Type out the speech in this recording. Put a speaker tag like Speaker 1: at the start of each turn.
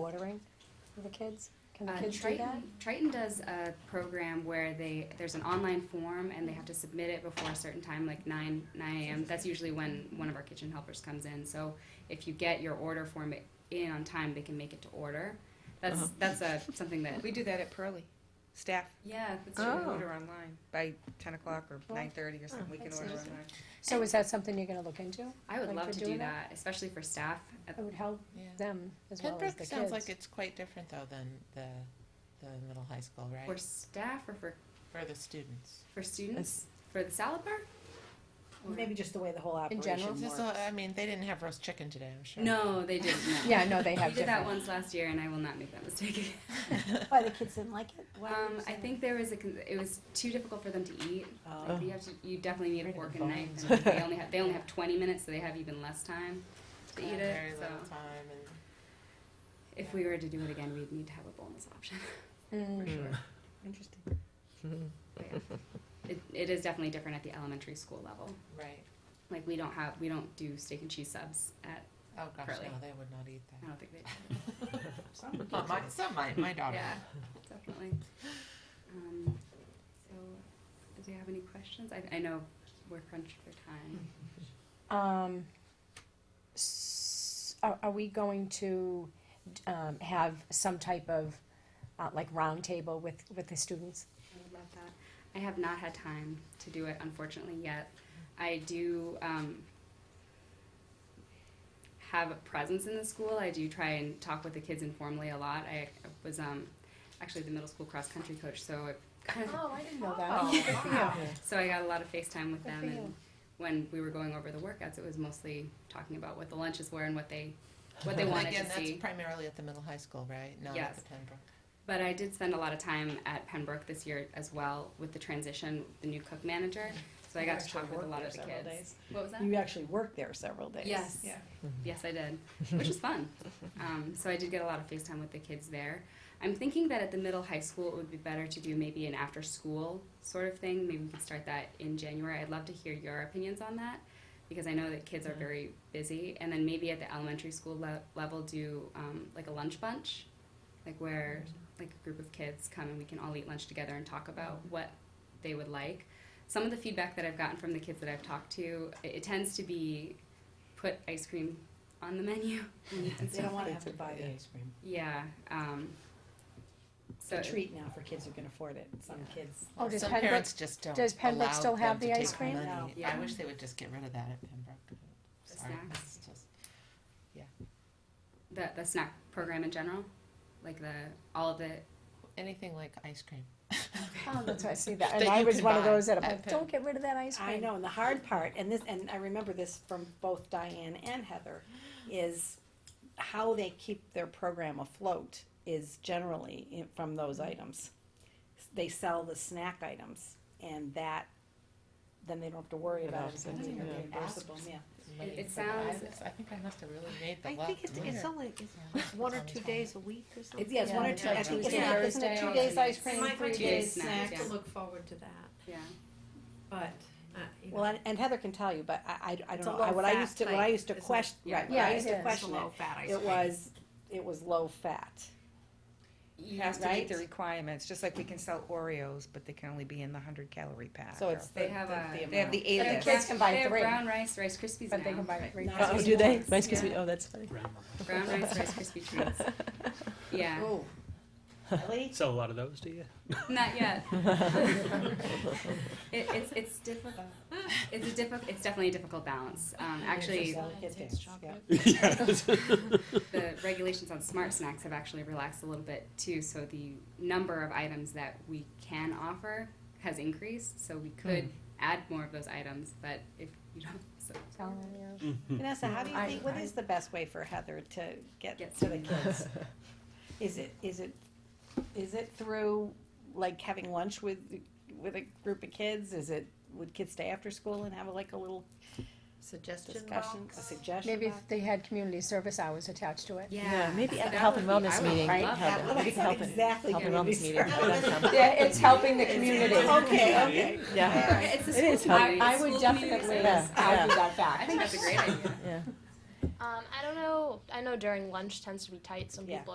Speaker 1: ordering for the kids? Can the
Speaker 2: Uh,
Speaker 1: kids do that?
Speaker 2: Triton, Triton does a program where they there's an online form and they have to submit it before a certain time, like nine nine a.m. That's usually when one of our kitchen helpers comes in. So if you get your order form in on time, they can make it to order. That's
Speaker 1: Uh-huh.
Speaker 2: that's a something that
Speaker 3: We do that at Pearly. Staff
Speaker 2: yeah that's
Speaker 3: can
Speaker 2: true.
Speaker 4: Oh.
Speaker 3: order online by 10 o'clock or
Speaker 1: Well,
Speaker 3: 9:30 or something. We can
Speaker 1: that's
Speaker 3: order
Speaker 1: interesting.
Speaker 3: online.
Speaker 1: So is that something you're gonna look into?
Speaker 2: I would
Speaker 1: Like
Speaker 2: love
Speaker 1: for
Speaker 2: to do
Speaker 1: doing
Speaker 2: that, especially for staff.
Speaker 1: It would help
Speaker 4: Yeah.
Speaker 1: them as well as the
Speaker 4: Pembroke
Speaker 1: kids.
Speaker 4: sounds like it's quite different though than the, the middle high school,
Speaker 2: For
Speaker 4: right?
Speaker 2: staff or for
Speaker 4: For the students.
Speaker 2: for students for the salad bar. Or-
Speaker 5: Maybe just the way the whole
Speaker 1: In general?
Speaker 5: operation
Speaker 4: This
Speaker 5: works.
Speaker 4: is all- I mean, they didn't have roast chicken today, I'm sure.
Speaker 2: No, they didn't. No.
Speaker 1: Yeah, no, they
Speaker 2: We
Speaker 1: have
Speaker 2: did that
Speaker 1: different.
Speaker 2: once last year, and I will not make that mistake again.
Speaker 5: Why the kids didn't like it? Why
Speaker 2: Um,
Speaker 5: did you
Speaker 2: I
Speaker 5: say Oh,
Speaker 2: think there was a, con- it was too difficult for them to eat.
Speaker 5: that?
Speaker 2: Like, You have to, you definitely need a
Speaker 4: Right in
Speaker 2: fork
Speaker 4: the
Speaker 2: and knife,
Speaker 4: bones.
Speaker 2: and they only have, they only have twenty minutes, so they have even less time to eat
Speaker 4: Very
Speaker 2: it, so.
Speaker 4: little time and.
Speaker 2: If we were to do it again, we'd need to have a bonus option.
Speaker 1: Mm.
Speaker 2: For sure.
Speaker 3: Interesting.
Speaker 5: Oh,
Speaker 2: But yeah. It, it is definitely different at the elementary school level.
Speaker 4: Right.
Speaker 2: Like, we don't have, we don't do steak and cheese subs at,
Speaker 4: Oh, gosh,
Speaker 2: Curly.
Speaker 4: no, they would not
Speaker 2: I
Speaker 4: eat that.
Speaker 2: don't think they do.
Speaker 5: Some
Speaker 4: Not my, some might, my daughter.
Speaker 2: Yeah, definitely. Um, so, do you have any questions? I, I know we're crunched for time.
Speaker 1: Um, s- are, are we going to, um, have some type of, uh, like roundtable with, with the students?
Speaker 2: I would love that. I have not had time to do it, unfortunately, yet. I do um, have a presence in the school. I do try and talk with the kids informally a lot. I was um, actually the middle school cross country coach, so it kind of
Speaker 1: Oh, I didn't know
Speaker 4: Oh,
Speaker 1: that.
Speaker 4: wow.
Speaker 2: So I got a lot of FaceTime with
Speaker 1: Good
Speaker 2: them,
Speaker 1: for
Speaker 2: and
Speaker 1: you.
Speaker 2: when we were going over the workouts, it was mostly talking about what the lunches were and what they what they
Speaker 4: And
Speaker 2: wanted
Speaker 4: again,
Speaker 2: to
Speaker 4: that's
Speaker 2: see.
Speaker 4: primarily at the middle high school, right? Not at
Speaker 2: Yes.
Speaker 4: the Pembroke.
Speaker 2: But I did spend a lot of time at Pembroke this year as well with the transition, the new cook manager. So I got to
Speaker 5: actually
Speaker 2: talk with a
Speaker 5: worked
Speaker 2: lot
Speaker 5: there
Speaker 2: of the
Speaker 5: several
Speaker 2: kids.
Speaker 5: days.
Speaker 2: What was that?
Speaker 5: You actually worked there several days.
Speaker 2: Yes.
Speaker 5: Yeah.
Speaker 2: Yes, I did, which was fun. Um, so I did get a lot of FaceTime with the kids there. I'm thinking that at the middle high school, it would be better to do maybe an after school sort of thing. Maybe we could start that in January. I'd love to hear your opinions on that because I know that kids are very busy. And then maybe at the elementary school le- level, do um, like a lunch bunch, like where like a group of kids come and we can all eat lunch together and talk about what they would like. Some of the feedback that I've gotten from the kids that I've talked to, it, it tends to be put ice cream on the menu. and
Speaker 5: They don't
Speaker 2: stuff.
Speaker 5: wanna have to buy the ice cream.
Speaker 2: yeah. Um, so
Speaker 5: It's a treat now for kids who can afford it. Some kids.
Speaker 1: Oh, does
Speaker 4: Some
Speaker 1: Pembroke-
Speaker 4: parents just don't
Speaker 1: does Pembroke
Speaker 4: allow
Speaker 1: still
Speaker 4: them
Speaker 1: have
Speaker 4: to
Speaker 1: the
Speaker 4: take
Speaker 1: ice cream?
Speaker 4: money.
Speaker 5: No.
Speaker 4: I
Speaker 2: Yeah.
Speaker 4: wish they would just get rid of that at Pembroke. Sorry,
Speaker 2: snacks.
Speaker 4: it's just.
Speaker 2: the, the snack program in general, like the all of the
Speaker 4: Anything like ice cream.
Speaker 1: Oh, that's why I see that.
Speaker 4: That
Speaker 1: And I
Speaker 4: you
Speaker 1: was
Speaker 4: can
Speaker 1: one of
Speaker 4: buy
Speaker 1: those that I'm
Speaker 4: at
Speaker 1: like,
Speaker 4: Pem-
Speaker 1: don't get rid of that ice cream.
Speaker 5: I know, and the hard part, and this, and I remember this from both Diane and Heather, is how they keep their program afloat is generally in- from those items. They sell the snack items, and that, then they don't have to worry about it, so it's
Speaker 4: Yeah.
Speaker 5: reimbursable, yeah.
Speaker 4: Money
Speaker 2: it
Speaker 4: for the
Speaker 2: sounds-
Speaker 4: ice. I think I must have really made the
Speaker 6: I
Speaker 4: luck.
Speaker 6: think it's, it's only
Speaker 4: Yeah.
Speaker 6: one or
Speaker 4: It's
Speaker 6: two
Speaker 4: on the
Speaker 6: days a week or something.
Speaker 5: It's, yeah, it's one or
Speaker 1: Yeah,
Speaker 5: two, I think, isn't it,
Speaker 6: Thursday.
Speaker 5: isn't it two
Speaker 2: Thursday.
Speaker 5: days ice cream,
Speaker 6: Might
Speaker 5: three
Speaker 6: be
Speaker 2: Tuesday
Speaker 5: days?
Speaker 6: days
Speaker 2: snacks,
Speaker 6: snack to
Speaker 2: yeah.
Speaker 6: look forward to that,
Speaker 2: yeah.
Speaker 6: but, uh, you know.
Speaker 5: Well, and- and Heather can tell you, but I, I, I
Speaker 6: It's
Speaker 5: don't
Speaker 6: a
Speaker 5: know, I- what I
Speaker 6: low-fat
Speaker 5: used to, what I
Speaker 6: thing,
Speaker 5: used to
Speaker 6: isn't it?
Speaker 5: question,
Speaker 2: Yeah.
Speaker 5: right, what I
Speaker 1: Yeah,
Speaker 5: used
Speaker 1: it
Speaker 5: to
Speaker 1: is.
Speaker 6: It's a
Speaker 5: question it,
Speaker 6: low-fat ice
Speaker 5: it
Speaker 6: cream.
Speaker 5: was, it was low fat.
Speaker 3: You have to meet the
Speaker 5: Right?
Speaker 3: requirements, just like we can sell Oreos, but they can only be in the 100 calorie pack.
Speaker 5: So it's the,
Speaker 2: They have a-
Speaker 5: the, the
Speaker 3: They have
Speaker 5: amount.
Speaker 3: the A
Speaker 2: They
Speaker 1: Yeah. The
Speaker 2: have
Speaker 3: list.
Speaker 1: kids
Speaker 2: brown-
Speaker 1: can buy
Speaker 2: they have
Speaker 1: three.
Speaker 2: brown rice, Rice Krispies
Speaker 1: But they
Speaker 2: now.
Speaker 1: can buy three.
Speaker 5: Not
Speaker 1: packs.
Speaker 5: as Oh, do they?
Speaker 2: Rice Krispies-
Speaker 6: oh, that's funny.
Speaker 2: brown rice, Rice Krispie treats. Yeah,
Speaker 5: Oh, really?
Speaker 7: Sell a lot of those, do you?
Speaker 2: not yet. it, it's it's difficult. It's a difficult. It's definitely a difficult balance. Um, actually, the regulations on smart snacks have actually relaxed a little bit too, so the number of items that we can offer has increased, so we could add more of those items, but if you don't, so.
Speaker 5: Vanessa, how do you
Speaker 1: I-
Speaker 5: think, what
Speaker 1: I-
Speaker 5: is the best way for Heather to get
Speaker 2: Get
Speaker 5: to the kids? Is it, is it, is it through, like, having lunch with, with a group of kids? Is it, would kids stay after school and have like a little
Speaker 6: Suggestion
Speaker 5: discussion, a
Speaker 6: box.
Speaker 5: suggestion?
Speaker 1: Maybe
Speaker 5: box?
Speaker 1: if they had community service hours attached to it.
Speaker 2: Yeah.
Speaker 8: maybe at the
Speaker 2: that
Speaker 8: health
Speaker 2: would
Speaker 8: and
Speaker 2: be- I
Speaker 8: wellness
Speaker 2: would
Speaker 8: meeting,
Speaker 2: love that.
Speaker 8: Heather, we can help it,
Speaker 5: Exactly.
Speaker 8: health and wellness meeting.
Speaker 1: Yeah, it's helping the community.
Speaker 5: Okay, okay.
Speaker 8: Yeah,
Speaker 2: It's the
Speaker 8: It is
Speaker 2: school
Speaker 8: healthy.
Speaker 2: community-
Speaker 1: I
Speaker 2: it's
Speaker 1: would
Speaker 2: school community
Speaker 1: definitely,
Speaker 2: service.
Speaker 1: I would do that back.
Speaker 2: I think that's a great idea.
Speaker 8: yeah.
Speaker 9: Um, I don't know. I know during lunch tends to be tight. Some
Speaker 5: Yeah.
Speaker 9: people are.